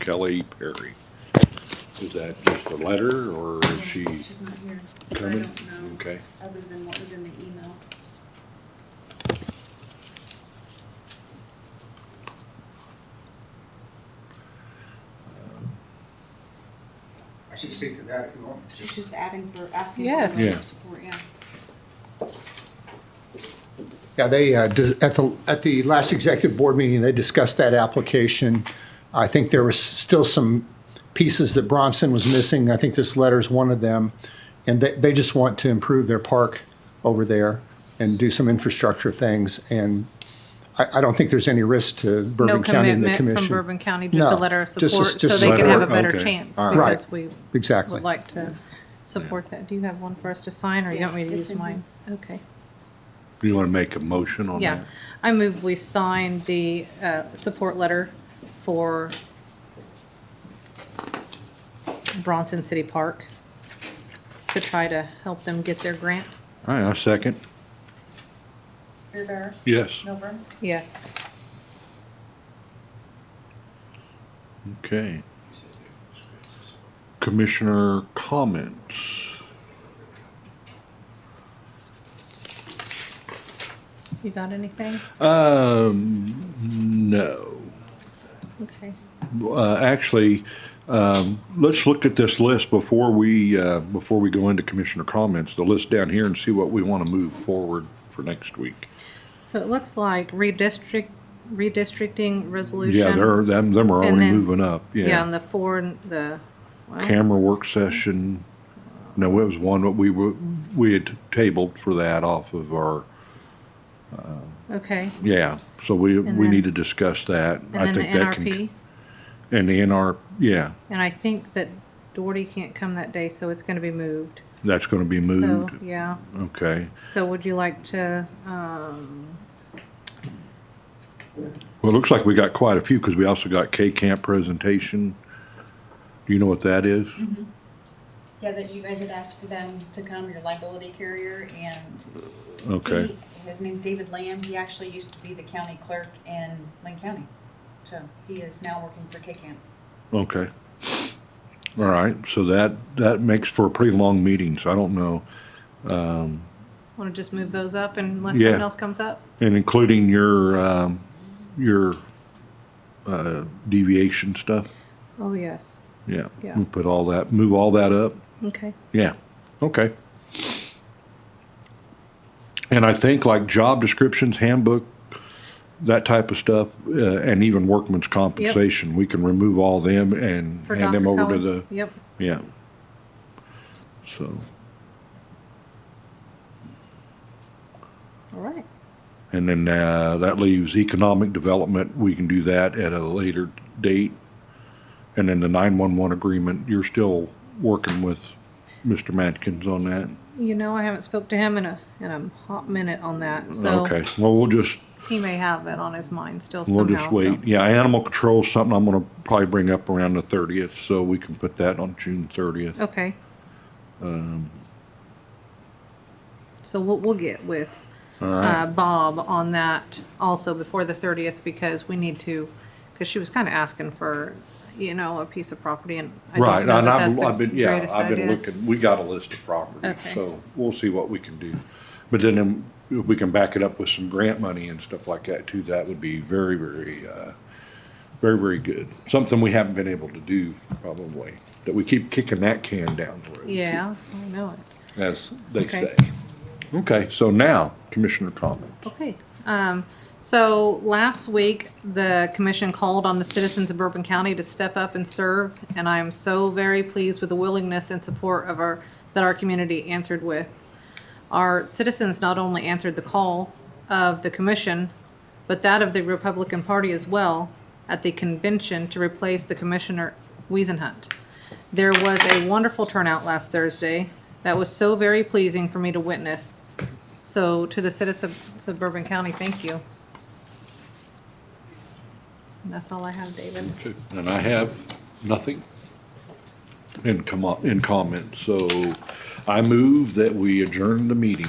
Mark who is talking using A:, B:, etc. A: Kelly Perry. Is that just a letter or is she
B: She's not here. I
A: coming?
B: don't know.
A: Okay.
B: Other than what was in the email.
C: I should speak to that if you want.
B: She's just adding for, asking for
D: Yes.
B: letter
A: Yeah.
B: of support, yeah.
E: Yeah, they, uh, dis- at the, at the last executive board meeting, they discussed that application. I think there was still some pieces that Bronson was missing. I think this letter's one of them. And they, they just want to improve their park over there and do some infrastructure things. And I, I don't think there's any risk to
D: No
E: Bourbon County and the
D: commitment from
E: commission.
D: Bourbon County, just a
E: No,
D: letter of
E: just a-
D: support, so
E: just
D: they
A: a
D: can have a
A: letter.
D: better
A: Okay.
D: chance,
A: All
E: right.
D: because we
E: Exactly.
D: would like to support that. Do you have one for us to sign, or you want me to
B: Yeah, it's
D: use
B: in
D: mine? Okay.
A: Do you want to make a motion on
D: Yeah,
A: that?
D: I move we sign the uh, support letter for Bronson City Park to try to help them get their grant.
A: All right, I'll second.
B: Beer
A: Yes,
B: Milburn.
D: Yes,
A: okay. Commissioner comments?
D: you got anything?
A: Uh, Um, no.
D: Okay.
A: Uh, actually, um, let's look at this list before we, uh, before we go into commissioner comments, the list down here and see what we want to move forward for next week.
D: So it looks like redistrict, redistricting resolution.
A: Yeah, they're, them, them are
D: And
A: already
D: then-
A: moving up,
D: Yeah, and the four, and the, well,
A: camera work session. No, it was one that we were, we had tabled for that off of our,
D: okay.
A: yeah, so we,
D: And
A: we
D: then-
A: need to discuss that. I
D: And then the
A: think that can-
D: NRP,
A: And the NR, yeah,
D: and I think that Doherty can't come that day, so it's gonna be moved.
A: that's gonna be
D: So,
A: moved,
D: yeah,
A: okay.
D: so would you like to, um,
A: Well, it looks like we got quite a few, cause we also got K Camp presentation. Do you know what that is?
D: Mm-hmm.
B: Yeah, that you guys had asked for them to come, your liability carrier, and
A: Okay,
B: he- his name's David Lamb. He actually used to be the county clerk in Lynn County. So he is now working for K-Camp.
A: okay. All right, so that, that makes for a pretty long meeting, so I don't know.
D: wanna just move those up unless
A: Yeah.
D: something else comes up?
A: And including your, um, your, uh, deviation stuff?
D: Oh, yes,
A: Yeah.
D: Yeah.
A: We Put all that, move all that up?
D: okay.
A: Yeah, okay. And I think like job descriptions, handbook, that type of stuff, uh, and even workman's compensation, we can remove all them and
D: For
A: hand them
D: Dr.
A: over to the,
D: Cohen. Yep,
A: yeah. So,
D: all right,
A: and then, uh, that leaves economic development, we can do that at a later date. And then the nine-one-one agreement, you're still working with Mr. Matkins on that?
D: you know, I haven't spoke to him in a, in a hot minute on that, so
A: Okay, well, we'll just,
D: he may have that on his mind still somehow,
A: We'll just
D: so-
A: wait. Yeah, animal control's something I'm gonna probably bring up around the thirtieth, so we can put that on June thirtieth.
D: Okay.
A: Um,
D: So we'll, we'll get with, uh, Bob on that also before the thirtieth, because we need to, because she was kind of asking for, you know, a piece of property and. I don't
A: Right, and
D: know that that's
A: I've,
D: the
A: I've been, yeah,
D: greatest
A: I've been
D: idea.
A: looking, we got a list of properties,
D: Okay.
A: so we'll see what we can do. But then, um, if we can back it up with some grant money and stuff like that too, that would be very, very, uh, very, very good. Something we haven't been able to do probably, that we keep kicking that can down the road.
D: Yeah, I know it.
A: As they
D: Okay.
A: say. Okay, so now commissioner comments.
D: Okay. Um, so last week, the commission called on the citizens of Bourbon County to step up and serve, and I am so very pleased with the willingness and support of our, that our community answered with. Our citizens not only answered the call of the commission, but that of the Republican Party as well at the convention to replace the Commissioner Weisenhunt. There was a wonderful turnout last Thursday that was so very pleasing for me to witness. So to the citizens of Bourbon County, thank you. And that's all I have, David.
A: Okay, And I have nothing in com, in comment, so I move that we adjourn the meeting.